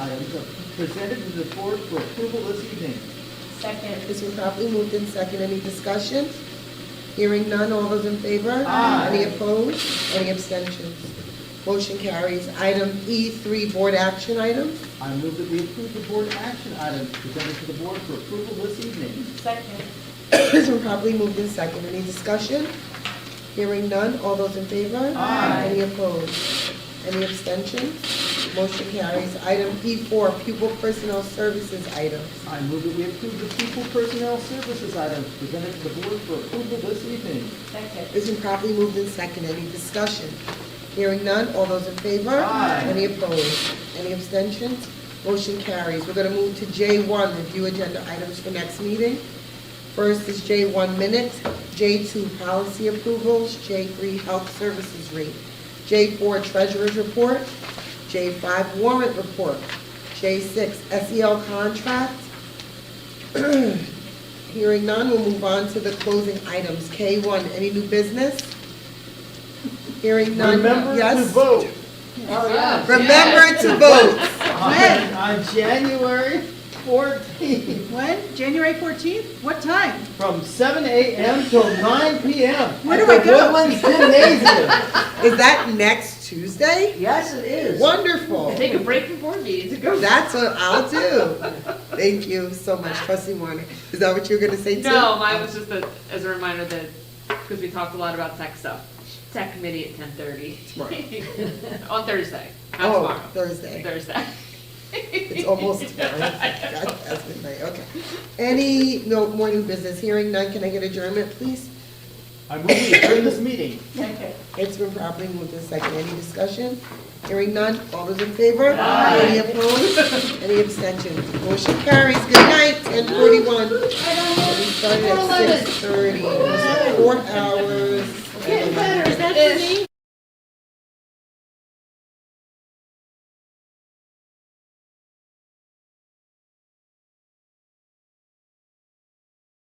items are presented to the board for approval this evening. Second. It's been properly moved in second. Any discussion? Hearing none, all those in favor? Aye. Any opposed? Any abstentions? Motion carries. Item E3, board action item. I move that we approve the board action items presented to the board for approval this evening. Second. It's been properly moved in second. Any discussion? Hearing none, all those in favor? Aye. Any opposed? Any abstentions? Motion carries. Item E4, pupil personnel services item. I move that we approve the people personnel services items presented to the board for approval this evening. Second. It's been properly moved in second. Any discussion? Hearing none, all those in favor? Aye. Any opposed? Any abstentions? Motion carries. We're going to move to J1, review agenda items for next meeting. First is J1 minutes, J2 policy approvals, J3 health services rate, J4 treasurer's report, J5 warrant report, J6 SEL E contract, Hearing none, we'll move on to the closing items. K1, any new business? Hearing none. Remember to yes. vote Remember to vote. on on January 14th When? January 14th? What time? from 7 a.m. till 9 p.m. Where do I go? At the Woodlands Gymnasium. Is that next Tuesday? Yes, it is. Wonderful. Take a break before meetings and go. That's what I'll do. Thank you so much, trustee Warner. Is that what you were gonna say too? No, mine was just a, as a reminder that, because we talked a lot about tech stuff, tech committee at ten thirty. Right. On Thursday, not Oh, tomorrow, Thursday. Thursday. It's almost time. God, that's midnight, okay. Any, no, more new business. Hearing none, can I get adjournment, please? I move we adjourn this meeting. Second. It's been properly moved in second. Any discussion? Hearing none. All those in favor? Aye. Any opposed? Any abstentions? Motion carries. Good night, ten forty-one. We started at six thirty. Four hours.